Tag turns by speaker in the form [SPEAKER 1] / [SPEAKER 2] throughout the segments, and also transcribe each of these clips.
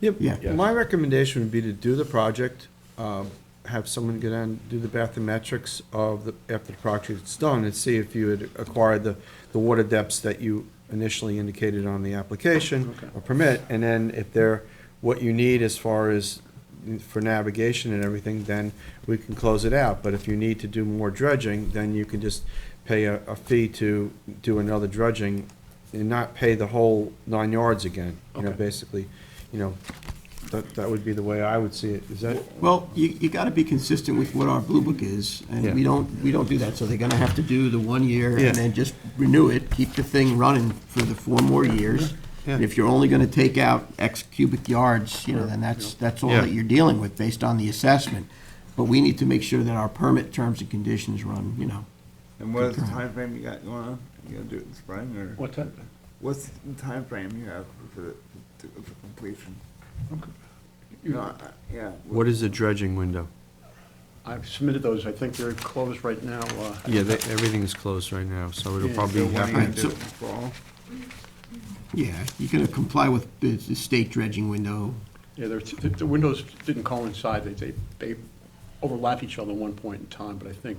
[SPEAKER 1] Yeah.
[SPEAKER 2] Yeah,
[SPEAKER 1] Yeah.
[SPEAKER 2] my recommendation would be to do the project, um, have someone go down, do the bathymetrics of the, after the project's done, and see if you had acquired the, the water depths that you initially indicated on the application or permit, and then if they're, what you need as far as for navigation and everything, then we can close it out. But if you need to do more dredging, then you can just pay a, a fee to do another dredging and not pay the whole nine yards again, you know, basically, you know, that, that would be the way I would see it, is that?
[SPEAKER 1] Well, you, you gotta be consistent with what our Blue Book is, and we
[SPEAKER 2] Yeah.
[SPEAKER 1] don't, we don't do that, so they're gonna have to do the one year
[SPEAKER 2] Yeah.
[SPEAKER 1] and then just renew it, keep the thing running for the four more years.
[SPEAKER 2] Yeah.
[SPEAKER 1] And if you're only gonna take out X cubic yards, you know, then that's, that's all
[SPEAKER 2] Yeah.
[SPEAKER 1] that you're dealing with based on the assessment. But we need to make sure that our permit terms and conditions run, you know.
[SPEAKER 3] And what is the timeframe you got going on? You gonna do it in spring or?
[SPEAKER 4] What time?
[SPEAKER 3] What's the timeframe you have for, the- to- for completion? No,
[SPEAKER 4] You-
[SPEAKER 3] I- yeah.
[SPEAKER 2] What is the dredging window?
[SPEAKER 4] I've submitted those, I think they're closed right now. uh,
[SPEAKER 2] Yeah, that, everything is closed right now, so it'll
[SPEAKER 3] Yeah,
[SPEAKER 2] probably
[SPEAKER 3] so when are you gonna
[SPEAKER 2] happen.
[SPEAKER 3] do it in fall?
[SPEAKER 1] Yeah, you're gonna comply with the, the state dredging window.
[SPEAKER 4] Yeah, there's, the the windows didn't coincide, they, they, they overlap each other at one point in time, but I think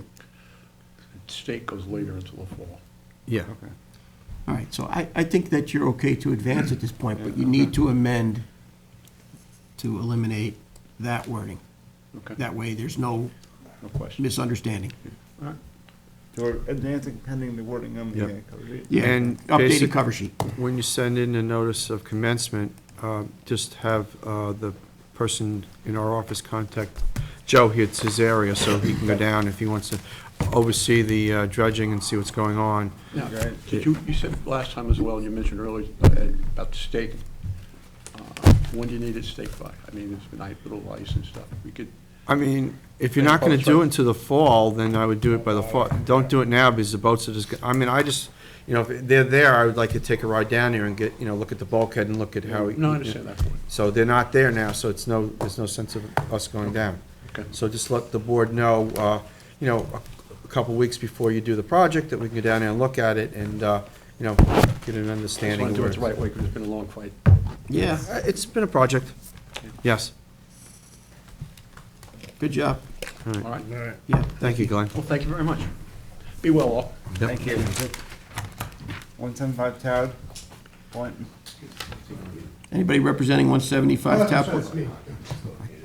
[SPEAKER 4] state goes later until the fall.
[SPEAKER 2] Yeah,
[SPEAKER 3] Okay.
[SPEAKER 1] All right, so I, I think that you're okay to advance at this point, but you need to amend to eliminate that wording.
[SPEAKER 4] Okay,
[SPEAKER 1] That way, there's no
[SPEAKER 4] no question.
[SPEAKER 1] misunderstanding.
[SPEAKER 4] All right.
[SPEAKER 3] So we're advancing pending the wording on the
[SPEAKER 2] Yep.
[SPEAKER 3] uh, cover sheet?
[SPEAKER 1] Yeah,
[SPEAKER 2] And
[SPEAKER 1] Updated
[SPEAKER 2] basic-
[SPEAKER 1] cover sheet.
[SPEAKER 2] when you send in a notice of commencement, uh, just have uh, the person in our office contact Joe here at Cesaria, so he can go down if he wants to oversee the uh, dredging and see what's going on.
[SPEAKER 4] Now,
[SPEAKER 3] Right.
[SPEAKER 4] did you, you said last time as well, and you mentioned earlier uh, about the state. Uh, When do you need it staked by? I mean, it's been a little ice and stuff, we could,
[SPEAKER 2] I mean, if you're
[SPEAKER 4] Yeah,
[SPEAKER 2] not gonna
[SPEAKER 4] boats
[SPEAKER 2] do
[SPEAKER 4] are-
[SPEAKER 2] it until the fall, then I would do it by the fall. Don't do it now because the boats are just, go- I mean, I just, you know, if they're there, I would like to take a ride down here and get, you know, look at the bulkhead and look at how.
[SPEAKER 4] no, I understand that point.
[SPEAKER 2] So they're not there now, so it's no, there's no sense of us going down.
[SPEAKER 4] Okay.
[SPEAKER 2] So just let the board know, uh, you know, a- a couple weeks before you do the project, that we can go down there and look at it and, uh, you know, get an
[SPEAKER 4] I just
[SPEAKER 2] understanding.
[SPEAKER 4] want to do it
[SPEAKER 2] of
[SPEAKER 4] the
[SPEAKER 2] where-
[SPEAKER 4] right way, because it's been a long fight.
[SPEAKER 1] Yeah,
[SPEAKER 2] Uh, It's been a project, yes.
[SPEAKER 1] good job.
[SPEAKER 4] All right?
[SPEAKER 1] Yeah.
[SPEAKER 2] Thank you, Glenn.
[SPEAKER 4] Well, thank you very much. Be well all.
[SPEAKER 2] Yep.
[SPEAKER 3] Thank you. One seven five Todd, point.
[SPEAKER 1] Anybody representing 175
[SPEAKER 5] That's
[SPEAKER 1] Tapua?
[SPEAKER 5] me.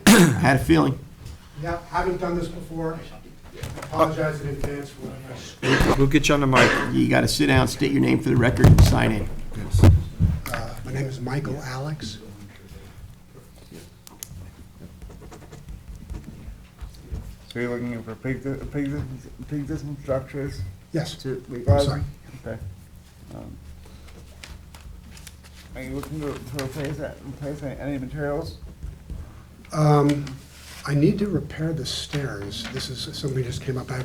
[SPEAKER 1] I had a feeling.
[SPEAKER 5] Yeah, haven't done this before. Apologize in advance for what I
[SPEAKER 2] We'll get you on the mic.
[SPEAKER 1] You got to sit down, state your name for the record, and sign in.
[SPEAKER 5] Uh, My name is Michael Alex.
[SPEAKER 3] So you're looking for pre pre-existing structures
[SPEAKER 5] Yes,
[SPEAKER 3] to
[SPEAKER 5] I'm
[SPEAKER 3] legalize?
[SPEAKER 5] sorry.
[SPEAKER 3] Okay. Um, Are you looking to to replace that, replace any materials?
[SPEAKER 5] Um, I need to repair the stairs. This is, somebody just came up. I,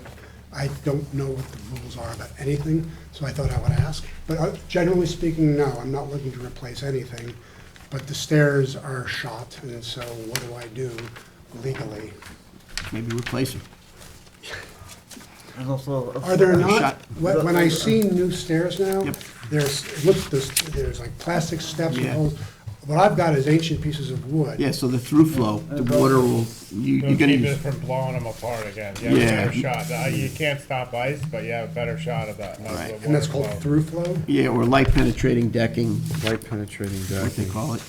[SPEAKER 5] I don't know what the rules are about anything, so I thought I would ask. But uh, generally speaking, no, I'm not looking to replace anything. But the stairs are shot, and so what do I do legally?
[SPEAKER 1] Maybe replace him.
[SPEAKER 3] There's also. a-
[SPEAKER 5] Are there not,
[SPEAKER 1] shot.
[SPEAKER 5] when when I see new stairs now,
[SPEAKER 1] Yep.
[SPEAKER 5] there's, look, there's, there's like plastic steps and
[SPEAKER 1] Yeah.
[SPEAKER 5] holes. What I've got is ancient pieces of wood.
[SPEAKER 1] Yeah, so the through flow, the water will, you-
[SPEAKER 6] It'll
[SPEAKER 1] you're going to
[SPEAKER 6] keep
[SPEAKER 1] use.
[SPEAKER 6] it from blowing them apart again. You have
[SPEAKER 1] Yeah.
[SPEAKER 6] a better shot. Uh, You can't stop ice, but you have a better shot of that.
[SPEAKER 1] Right.
[SPEAKER 5] And that's called through flow?
[SPEAKER 1] Yeah, or light penetrating decking,
[SPEAKER 2] Light penetrating
[SPEAKER 1] what they
[SPEAKER 2] decking.
[SPEAKER 1] call it.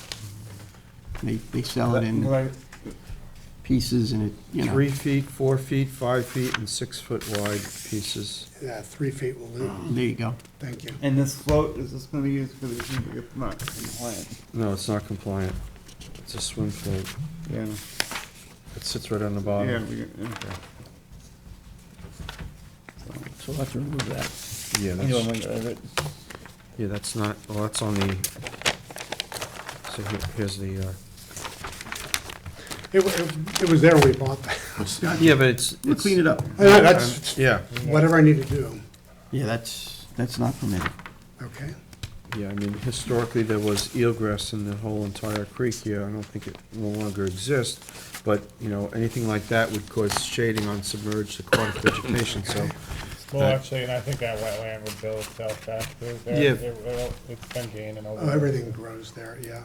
[SPEAKER 1] They, they sell it in
[SPEAKER 3] Like,
[SPEAKER 1] pieces and it, you know.
[SPEAKER 2] Three feet, four feet, five feet, and six foot wide pieces.
[SPEAKER 5] Yeah, three feet will do.
[SPEAKER 1] There you go.
[SPEAKER 5] Thank you.
[SPEAKER 3] And this float is just gonna be used for the, it's not compliant.
[SPEAKER 2] No, it's not compliant. It's a swim float.
[SPEAKER 3] Yeah,
[SPEAKER 2] It sits right on the
[SPEAKER 3] yeah,
[SPEAKER 2] bottom.
[SPEAKER 3] we, okay.
[SPEAKER 1] So let's remove that.
[SPEAKER 2] Yeah,
[SPEAKER 3] You wanna
[SPEAKER 2] that's,
[SPEAKER 3] look at it?
[SPEAKER 2] yeah, that's not, well, that's on the, so here- here's the, uh,
[SPEAKER 5] It, wa- it- it was there when we bought the house.
[SPEAKER 2] yeah, but it's.
[SPEAKER 1] We'll
[SPEAKER 2] it's-
[SPEAKER 1] clean it up.
[SPEAKER 5] Yeah, That's
[SPEAKER 2] Yeah,
[SPEAKER 5] whatever I need to do,
[SPEAKER 1] Yeah, that's, that's not permitted.
[SPEAKER 5] okay?
[SPEAKER 2] yeah, I mean, historically, there was eelgrass in the whole entire creek here. I don't think it no longer exists, but, you know, anything like that would cause shading on submerged aquatic vegetation, so
[SPEAKER 6] Well, actually, and I think that wetland would build itself back through there.
[SPEAKER 2] Yeah.
[SPEAKER 1] Oh,
[SPEAKER 6] It will- It's been gaining over.
[SPEAKER 5] Oh, everything grows there, yeah.